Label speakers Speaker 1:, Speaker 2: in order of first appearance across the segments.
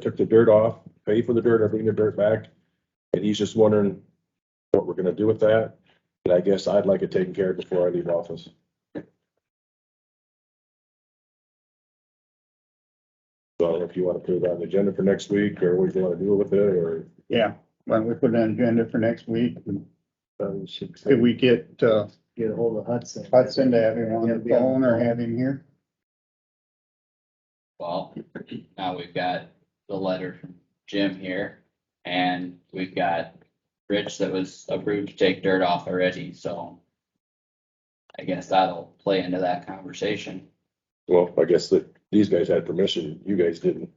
Speaker 1: took the dirt off, paid for the dirt, I bring the dirt back. And he's just wondering what we're gonna do with that. And I guess I'd like it taken care of before I leave office. So I don't know if you wanna put it on the agenda for next week or what you wanna do with it or.
Speaker 2: Yeah, why don't we put an agenda for next week?
Speaker 3: Probably should
Speaker 2: Could we get, uh,
Speaker 3: get hold of Hudson.
Speaker 2: Hudson to have him on the phone or have him here?
Speaker 4: Well, now we've got the letter from Jim here and we've got Rich that was approved to take dirt off already, so. I guess that'll play into that conversation.
Speaker 1: Well, I guess that these guys had permission, you guys didn't.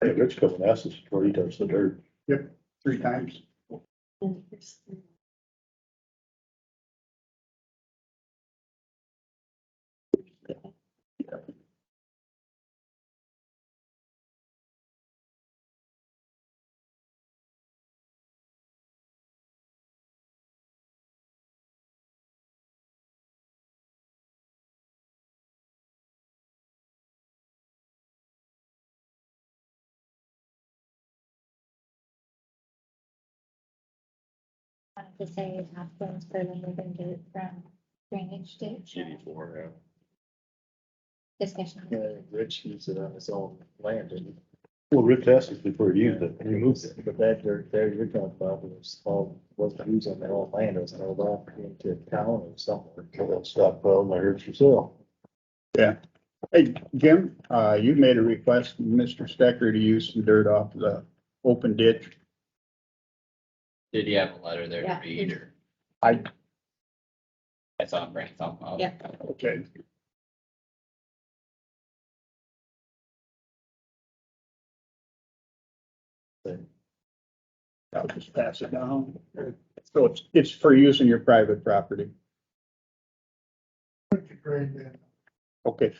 Speaker 5: Hey, Rich comes and asks us before he touches the dirt.
Speaker 2: Three times.
Speaker 6: wanted to say Hopkins, but then we're gonna do it from drainage ditch
Speaker 1: Eighty-four,
Speaker 6: discussion.
Speaker 3: Yeah, Rich used it on his own land and
Speaker 5: Well, Rich asked us before he used it, he
Speaker 3: removed
Speaker 5: moved
Speaker 3: it, but that dirt there you're talking about was all, wasn't used on their own land, it was held off into town or somewhere.
Speaker 5: it. Stop, well, I heard yourself.
Speaker 2: Hey, Jim, uh, you made a request, from Mr. Stecker, to use some dirt off the open ditch.
Speaker 4: Did you have a letter there to
Speaker 6: Yeah.
Speaker 4: read or?
Speaker 2: I-
Speaker 4: I saw him bring something up.
Speaker 6: Yeah.
Speaker 2: Okay. I'll just pass it down. So it's, it's for use in your private property. Okay,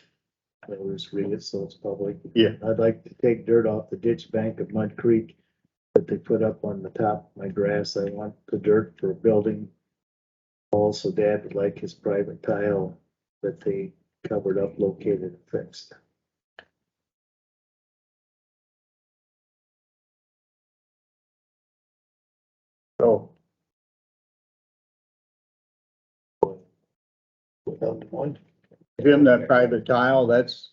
Speaker 3: They always read it, so it's public.
Speaker 2: Yeah.
Speaker 3: I'd like to take dirt off the ditch bank of Mud Creek that they put up on the top of my grass. I want the dirt for building. Also, Dad would like his private tile that they covered up, located and fixed.
Speaker 2: so
Speaker 5: Without the point.
Speaker 2: Jim, that private tile, that's.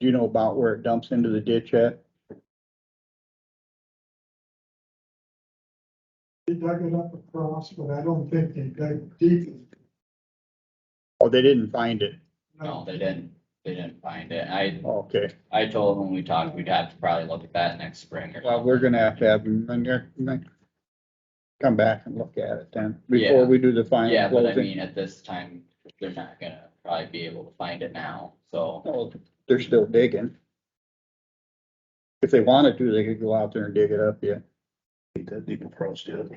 Speaker 2: Do you know about where it dumps into the ditch at?
Speaker 7: They dug it up across, but I don't think they dug deep.
Speaker 2: Oh, they didn't find it.
Speaker 4: No, they didn't, they didn't find it. I,
Speaker 2: Okay,
Speaker 4: I told them when we talked, we'd have to probably look at that next spring or.
Speaker 2: well, we're gonna have to have them in there. in there. Come back and look at it then, before
Speaker 4: Yeah.
Speaker 2: we do the final
Speaker 4: Yeah, but I
Speaker 2: closing.
Speaker 4: mean, at this time, they're not gonna probably be able to find it now, so.
Speaker 2: Oh, They're still digging. If they wanted to, they could go out there and dig it up, yeah.
Speaker 5: Ain't that deep across yet.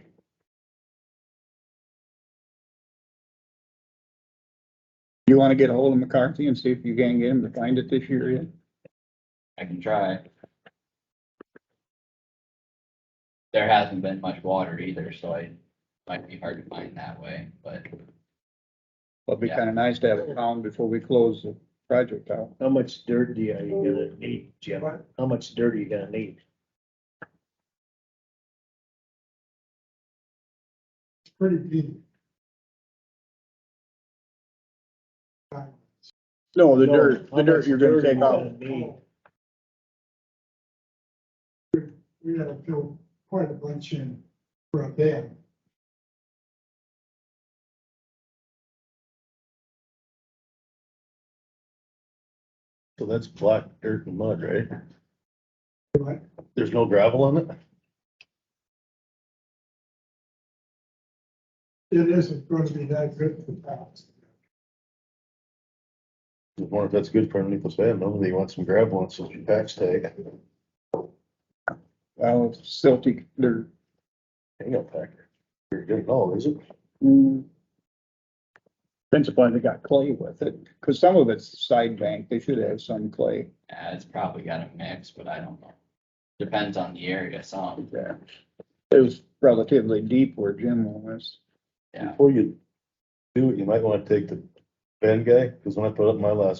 Speaker 2: You wanna get a hold of McCarthy and see if you can get him to find it this year yet?
Speaker 4: I can try. There hasn't been much water either, so it might be hard to find that way, but
Speaker 2: It'd be
Speaker 4: Yeah.
Speaker 2: kinda nice to have it found before we close the project out.
Speaker 3: How much dirt do you, are you gonna need, Jim? How much dirt are you gonna need?
Speaker 7: It's pretty deep. Right.
Speaker 2: No, the
Speaker 3: No,
Speaker 2: dirt,
Speaker 3: how
Speaker 2: the dirt
Speaker 3: much
Speaker 2: you're gonna
Speaker 3: dirt
Speaker 2: take
Speaker 3: you
Speaker 2: out.
Speaker 3: gonna need?
Speaker 7: We- We gotta fill quite a bunch in for a dam.
Speaker 5: So that's black dirt and mud, right?
Speaker 7: Right.
Speaker 5: There's no gravel on it?
Speaker 7: It isn't going to be that good for towns.
Speaker 5: I wonder if that's good for underneath the sand, no, they want some gravel on, so you tax tag.
Speaker 2: Well, silty, they're,
Speaker 5: Hang up packer. You're good, no, is it?
Speaker 2: mm, depends upon if they got clay with it, cause some of it's side bank, they should have some clay.
Speaker 4: uh, it's probably got a mix, but I don't know. Depends on the area some,
Speaker 2: Yeah. It was relatively deep where Jim was.
Speaker 4: yeah.
Speaker 5: Before you do it, you might wanna take the Ben guy, cause when I put up my last